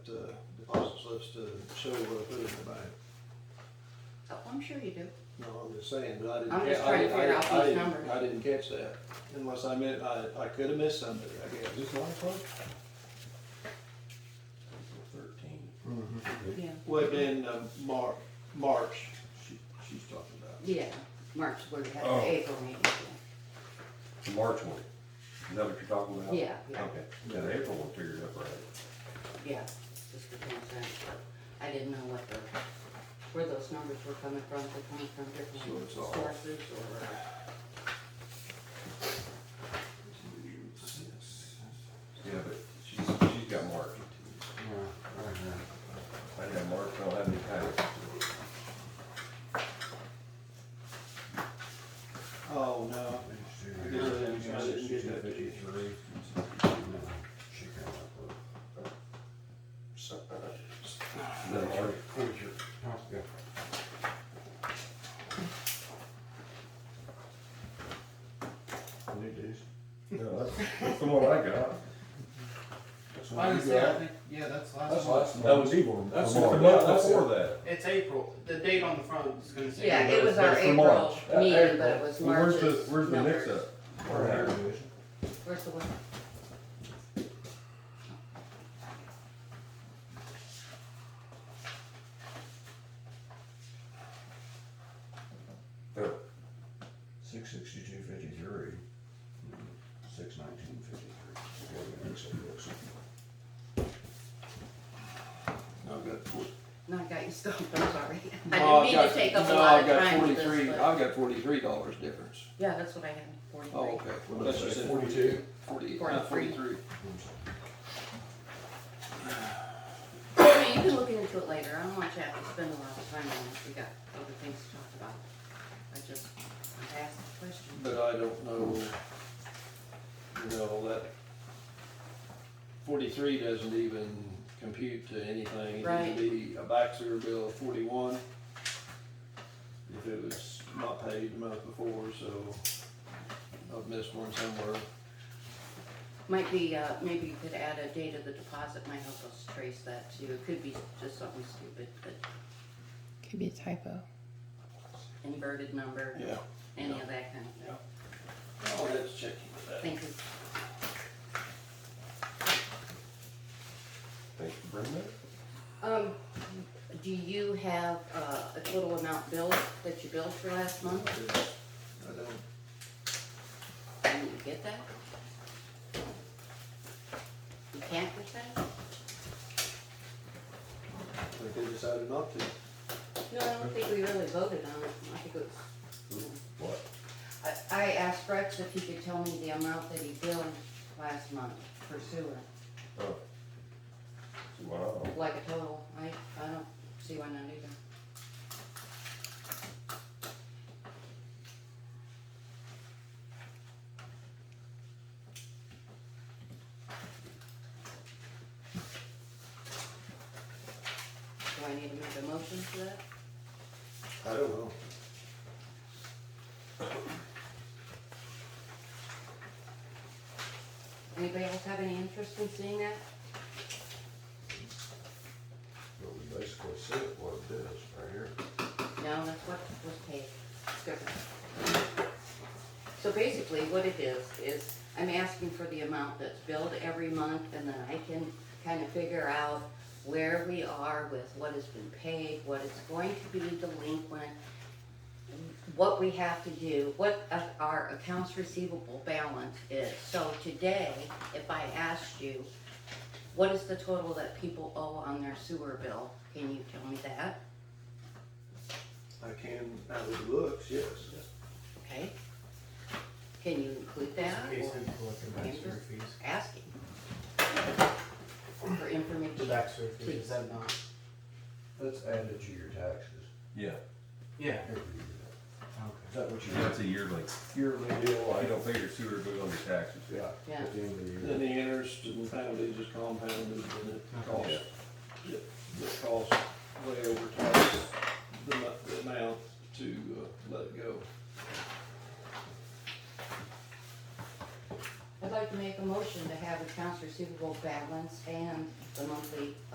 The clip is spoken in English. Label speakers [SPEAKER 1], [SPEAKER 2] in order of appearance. [SPEAKER 1] uh, us to show what I put in the bank.
[SPEAKER 2] Oh, I'm sure you do.
[SPEAKER 1] No, I'm just saying, but I didn't.
[SPEAKER 2] I'm just
[SPEAKER 1] I
[SPEAKER 2] trying to
[SPEAKER 1] didn't-
[SPEAKER 2] figure
[SPEAKER 1] I
[SPEAKER 2] out
[SPEAKER 1] didn't- I
[SPEAKER 2] these
[SPEAKER 1] didn't-
[SPEAKER 2] numbers.
[SPEAKER 1] I didn't catch that, unless I meant, I, I could've missed somebody, I guess. Is this line close?
[SPEAKER 3] Thirteen,
[SPEAKER 2] Yeah.
[SPEAKER 1] Well, then, um, Mar- March, she, she's talking about.
[SPEAKER 2] Yeah, March where we had
[SPEAKER 3] Oh.
[SPEAKER 2] the April meeting.
[SPEAKER 3] the March one, is that what you're talking about?
[SPEAKER 2] Yeah, yeah.
[SPEAKER 3] Okay, yeah, the April one figured up right.
[SPEAKER 2] Yeah, just for transparency. I didn't know what the, where those numbers were coming from, if they're coming from
[SPEAKER 1] So
[SPEAKER 2] different
[SPEAKER 1] it's all-
[SPEAKER 2] sources or. uh,
[SPEAKER 3] Yeah, but she's, she's got March. I didn't have March, I don't have any time.
[SPEAKER 1] Oh, no, I guess I didn't, I didn't get that. to you.
[SPEAKER 3] No, March. No, that's, that's the one I got.
[SPEAKER 4] I was saying, I think, yeah, that's last month.
[SPEAKER 3] last. That was April. That's the
[SPEAKER 5] March.
[SPEAKER 3] month before that.
[SPEAKER 4] It's April, the date on the front is gonna say.
[SPEAKER 2] Yeah, it was our
[SPEAKER 3] That's for March.
[SPEAKER 2] April meeting, but it
[SPEAKER 3] April.
[SPEAKER 2] was
[SPEAKER 3] Well, Where's the,
[SPEAKER 2] March's
[SPEAKER 3] where's the
[SPEAKER 2] numbers.
[SPEAKER 3] mix up?
[SPEAKER 2] Where's the one?
[SPEAKER 3] Oh,
[SPEAKER 5] Six sixty-two fifty-three, six nineteen fifty-three.
[SPEAKER 1] I've got four-
[SPEAKER 2] No, I got you stumped, I'm sorry. I
[SPEAKER 1] Oh, I've
[SPEAKER 2] didn't mean to
[SPEAKER 1] got-
[SPEAKER 2] take up a
[SPEAKER 1] no,
[SPEAKER 2] lot
[SPEAKER 1] I've
[SPEAKER 2] of
[SPEAKER 1] got
[SPEAKER 2] time with this,
[SPEAKER 1] 43
[SPEAKER 2] but-
[SPEAKER 1] I've got forty-three dollars difference.
[SPEAKER 2] Yeah, that's what I had,
[SPEAKER 1] Oh,
[SPEAKER 2] forty-three.
[SPEAKER 1] okay, well, that's just it.
[SPEAKER 5] Forty-two?
[SPEAKER 1] Forty, not
[SPEAKER 2] Forty-three.
[SPEAKER 1] forty-three.
[SPEAKER 2] I mean, you can look into it later, I don't want you to have to spend a lot of time on it, we got other things to talk about. I just asked the question.
[SPEAKER 1] But I don't know, you know, that forty-three doesn't even compute to anything. It'd
[SPEAKER 2] Right.
[SPEAKER 1] be a Baxter bill of forty-one if it was not paid the month before, so I've missed one somewhere.
[SPEAKER 2] Might be, uh, maybe you could add a date of the deposit, might help us trace that too, it could be just something stupid, but
[SPEAKER 6] Could be a typo.
[SPEAKER 2] inverted number,
[SPEAKER 1] Yeah.
[SPEAKER 2] any of that kind of thing.
[SPEAKER 1] Oh, that's checking with that.
[SPEAKER 2] Thank you.
[SPEAKER 3] Thanks for bringing that.
[SPEAKER 2] Um, do you have, uh, a total amount billed, that you billed for last month?
[SPEAKER 1] I don't,
[SPEAKER 2] Can you get that? You can't get that?
[SPEAKER 1] think they decided not to.
[SPEAKER 2] No, I don't think we really voted on it, I think it was,
[SPEAKER 3] What?
[SPEAKER 2] I, I asked Rex if he could tell me the amount that he billed last month for sewer,
[SPEAKER 3] Oh. See, why not?
[SPEAKER 2] like a total, I, I don't see why not either. Do I need to make a motion for that?
[SPEAKER 1] I don't know.
[SPEAKER 2] Anybody else have any interest in seeing that?
[SPEAKER 5] But we basically said what it is, right here.
[SPEAKER 2] No, that's what was paid. It's different. So basically, what it is, is I'm asking for the amount that's billed every month, and then I can kind of figure out where we are with what has been paid, what is going to be delinquent, what we have to do, what a- our accounts receivable balance is. So today, if I asked you, what is the total that people owe on their sewer bill? Can you tell me that?
[SPEAKER 1] I can, out of the books, yes.
[SPEAKER 2] Okay. Can you include that?
[SPEAKER 4] Case
[SPEAKER 2] or-
[SPEAKER 4] and collecting back sewer fees.
[SPEAKER 2] Asking. For
[SPEAKER 4] The
[SPEAKER 2] information.
[SPEAKER 4] back sewer fees, is that not?
[SPEAKER 5] That's added to your taxes.
[SPEAKER 3] Yeah,
[SPEAKER 4] Yeah.
[SPEAKER 5] Every year. Is
[SPEAKER 4] Okay.
[SPEAKER 5] that what you
[SPEAKER 3] that's a yearly.
[SPEAKER 5] yearly deal?
[SPEAKER 3] You don't pay your sewer bill on your taxes.
[SPEAKER 5] Yeah,
[SPEAKER 2] Yeah.
[SPEAKER 5] at the end of the year.
[SPEAKER 1] Then the interest and penalties is compounded and it costs,
[SPEAKER 3] Yeah.
[SPEAKER 1] it it costs way over twice the mu- the amount to uh, let it go.
[SPEAKER 2] I'd like to make a motion to have accounts receivable balance and the monthly